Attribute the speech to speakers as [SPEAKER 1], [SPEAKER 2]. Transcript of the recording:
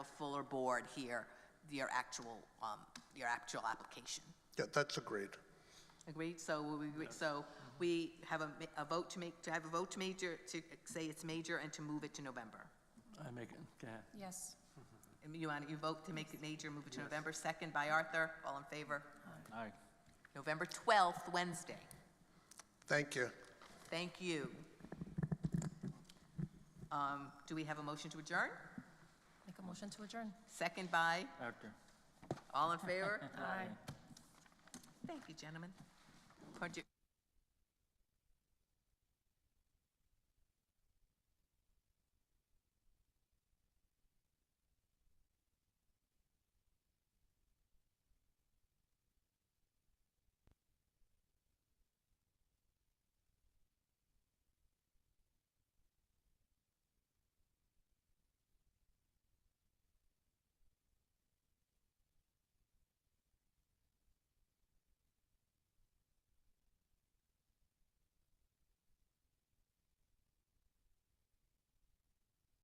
[SPEAKER 1] fuller board hear your actual, um, your actual application.
[SPEAKER 2] Yeah, that's agreed.
[SPEAKER 1] Agreed? So we, we- so we have a, ma- a vote to make, to have a vote to major, to say it's major and to move it to November.
[SPEAKER 3] I make it, go ahead.
[SPEAKER 4] Yes.
[SPEAKER 1] And You want, you vote to make it major, move it to November, second by Arthur, all in favor?
[SPEAKER 3] Aye.
[SPEAKER 1] November 12th, Wednesday.
[SPEAKER 2] Thank you.
[SPEAKER 1] Thank you. Um, Do we have a motion to adjourn?
[SPEAKER 4] Make a motion to adjourn.
[SPEAKER 1] Second by,
[SPEAKER 3] Arthur.
[SPEAKER 1] all in favor?
[SPEAKER 4] Aye.
[SPEAKER 1] Thank you, gentlemen. Project-